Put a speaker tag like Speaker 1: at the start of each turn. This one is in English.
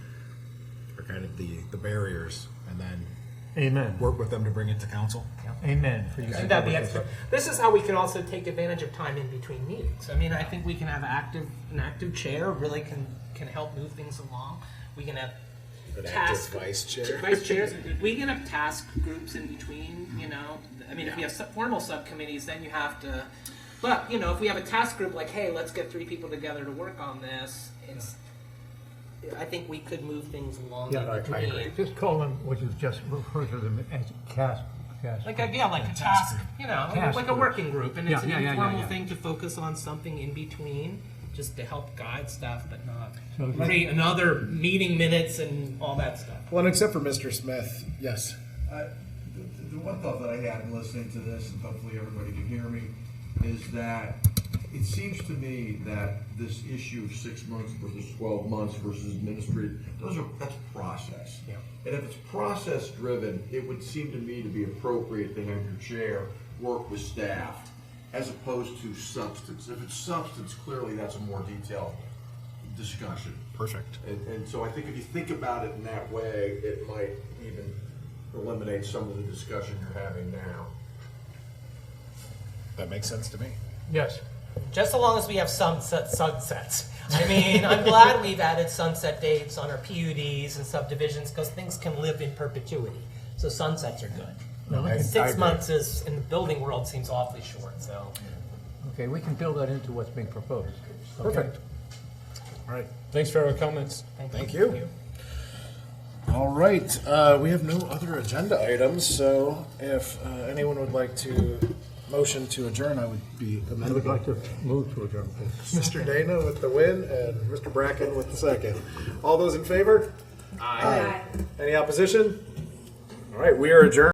Speaker 1: are kind of the, the barriers, and then
Speaker 2: Amen.
Speaker 1: work with them to bring it to council.
Speaker 2: Amen. For you.
Speaker 3: Should that be extra? This is how we can also take advantage of time in between meetings. I mean, I think we can have active, an active chair really can, can help move things along. We can have task.
Speaker 1: vice chair.
Speaker 3: Vice chairs, we can have task groups in between, you know, I mean, if we have sub- formal subcommittees, then you have to, but, you know, if we have a task group, like, hey, let's get three people together to work on this, it's, I think we could move things along
Speaker 2: Yeah, I- I
Speaker 3: in between.
Speaker 2: Just call them what you've just referred to them as cast. cast.
Speaker 3: Like a, yeah, like a task, you know,
Speaker 2: Task
Speaker 3: like a
Speaker 2: group.
Speaker 3: working group, and it's
Speaker 2: Yeah, yeah,
Speaker 3: an
Speaker 2: yeah, yeah,
Speaker 3: informal
Speaker 2: yeah.
Speaker 3: thing to focus on something in between, just to help guide stuff, but not
Speaker 2: So it's like-
Speaker 3: create another meeting minutes and all that stuff.
Speaker 4: Well, and except for Mr. Smith, yes.
Speaker 5: I- the- The one thought that I had in listening to this, and hopefully everybody can hear me, is that it seems to me that this issue of six months versus twelve months versus administrative, those are, that's process.
Speaker 3: Yeah.
Speaker 5: And if it's process driven, it would seem to me to be appropriate to have your chair work with staff as opposed to substance. If it's substance, clearly that's a more detailed discussion.
Speaker 1: Perfect.
Speaker 5: And, and so I think if you think about it in that way, it might even eliminate some of the discussion you're having now.
Speaker 1: That makes sense to me.
Speaker 2: Yes.
Speaker 3: Just so long as we have sunset sunsets. I mean, I'm glad we've added sunset dates on our PUDs and subdivisions because things can live in perpetuity. So sunsets are good.
Speaker 2: Now, we
Speaker 1: I-
Speaker 2: can-
Speaker 1: I
Speaker 3: Six
Speaker 1: agree.
Speaker 3: months is in the building world seems awfully short. So
Speaker 2: Okay, we can build that into what's being proposed. Okay?
Speaker 4: Perfect.
Speaker 1: All right.
Speaker 6: Thanks for your comments.
Speaker 1: Thank you.
Speaker 4: All right, uh, we have no other agenda items, so if uh, anyone would like to motion to adjourn, I would be
Speaker 2: I would like
Speaker 4: amenable.
Speaker 2: to move to adjourn, please.
Speaker 4: Mr. Dana with the win and Mr. Bracken with the second. All those in favor? Aye. Any opposition? All right, we are adjourned.